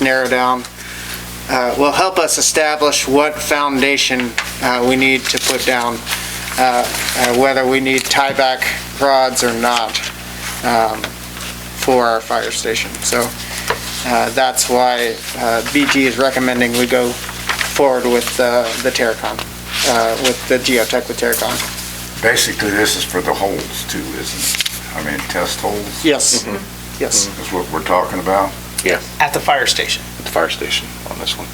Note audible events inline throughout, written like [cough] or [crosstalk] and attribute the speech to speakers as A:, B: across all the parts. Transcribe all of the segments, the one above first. A: narrow down, uh, will help us establish what foundation uh, we need to put down, uh, uh, whether we need tieback rods or not um, for our fire station. So uh, that's why uh, BG is recommending we go forward with uh, the Terracon, uh, with the geotech with Terracon.
B: Basically, this is for the holes too, isn't it? I mean, test holes
A: Yes, Mm-hmm. yes.
B: is what we're talking about.
C: At the fire station.
D: at the fire station on this one.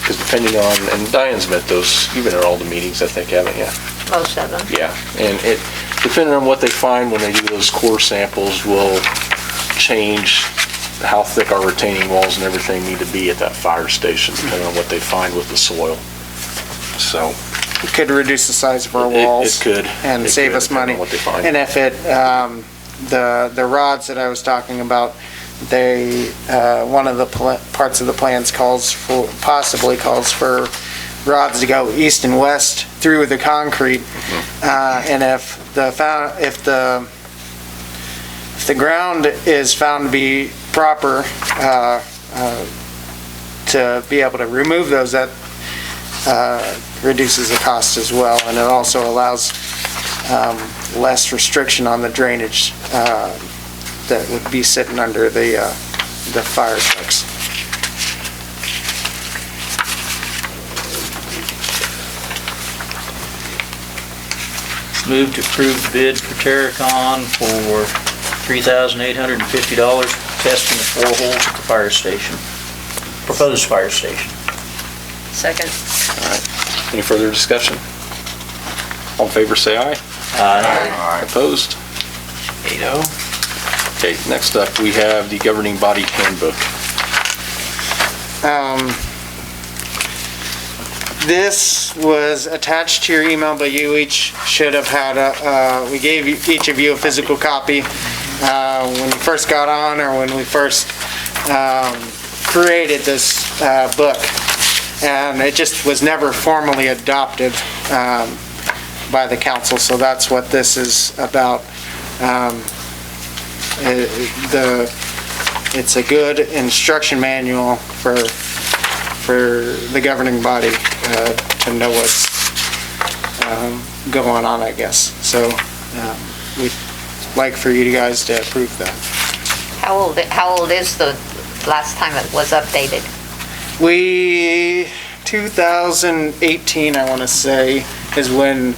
D: Because depending on, and Diane's met those, you've been at all the meetings, I think, haven't you?
E: Most of them.
D: Yeah. And it, depending on what they find when they do those core samples will change how thick our retaining walls and everything need to be at that fire station, depending on what they find with the soil. So.
A: It could reduce the size of our
D: Mm-hmm. it- it-
A: walls.
D: It could.
A: and
D: It
A: save
D: could,
A: us money.
D: depending on What they find.
A: And if it, um, the, the rods that I was talking about, they, uh, one of the pla- parts of the plans calls for, possibly calls for rods to go east and west through the concrete.
D: Mm-hmm.
A: Uh, and if the, fou- if the, if the ground is found to be proper, uh, uh, to be able to remove those, that, uh, reduces the cost as well. And it also allows um, less restriction on the drainage uh, that would be sitting under the, uh, the fire trucks.
F: Move to approve bid for Terracon for $3,850 for testing the four holes at the fire station, proposed fire station.
E: Second.
D: Any further discussion? All in favor, say aye.
F: Uh,
B: All right,
D: Opposed?
C: 8-0.
D: Okay, next up, we have the governing body handbook.
A: Um, This was attached to your email, but you each should have had a, uh, we gave you- each of you a physical copy uh, when you first got on or when we first um, created this uh, book. And it just was never formally adopted um, by the council, so that's what this is about. Um, it- The it's a good instruction manual for, for the governing body uh, to know what's um, going on, I guess. So um, we'd like for you guys to approve that.
E: How old, how old is the last time it was updated?
A: We, 2018, I want to say, is when,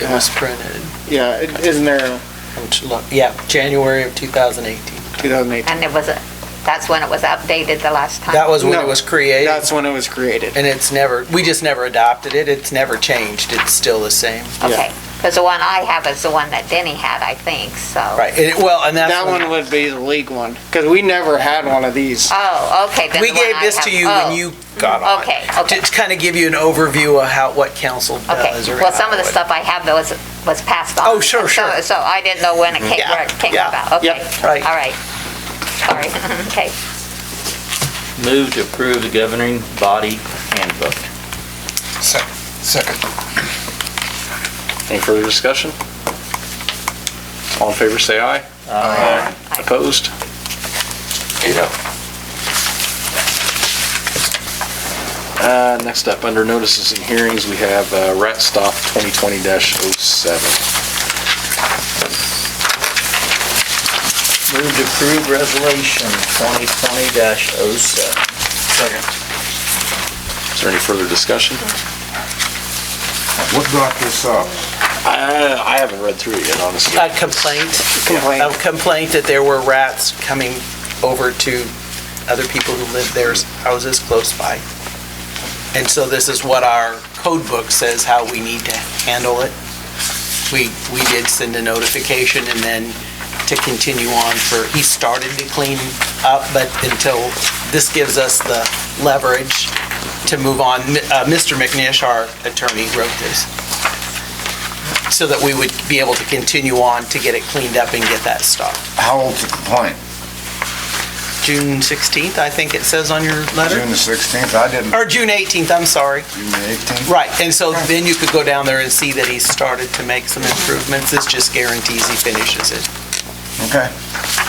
C: It was printed.
A: yeah, isn't there
C: Which lo- Yeah, January of 2018.
A: 2018?
E: And it was, a- that's when it was updated the last time?
C: That was when
A: No,
C: it was created,
A: That's when it was created.
C: and it's never, we just never adopted it, it's never changed, it's still the same.
E: Okay, because the one I have is the one that Denny had, I think, so.
C: Right, and it- well, and that's.
A: That one would be the league one, because we never had one of these.
E: Oh, okay. then
C: We
E: the one
C: gave
E: I
C: this
E: have-
C: to you
E: oh,
C: when you got on.
E: Okay, okay.
C: To kind of give you an overview of how, what council does.
E: Okay,
C: or
E: well, some of the
C: how it-
E: stuff I have that was, was passed on.
C: Oh, sure,
E: So-
C: sure.
E: So I didn't know when it came, where it
C: Yeah,
E: came
C: yeah,
E: about, okay.
A: yep,
C: right.
E: All right, sorry, [laughs] okay.
F: Move to approve the governing body handbook.
D: Any further discussion? All in favor, say aye. Aye. Opposed? Uh, Next up, under notices and hearings, we have uh, Rat Stop 2020-07.
F: Move to approve resolution 2020-07.
D: Is there any further discussion?
B: what brought this up?
D: I I haven't read through it yet, honestly.
C: A complaint.
A: Complaint.
C: a complaint that there were rats coming over to other people who lived their houses close by. And so this is what our code book says how we need to handle it. We, we did send a notification and then to continue on for, he started to clean up, but until, this gives us the leverage to move on. Mi- uh, Mr. McNish, our attorney, wrote this so that we would be able to continue on to get it cleaned up and get that stopped.
B: How old's the complaint?
C: June 16th, I think it says on your
B: June
C: letter?
B: the 16th? I didn't,
C: Or June 18th, I'm sorry.
B: June the 18th?
C: Right, and so then you could go down there and see that he started to make some improvements. This just guarantees he finishes it.
B: Okay.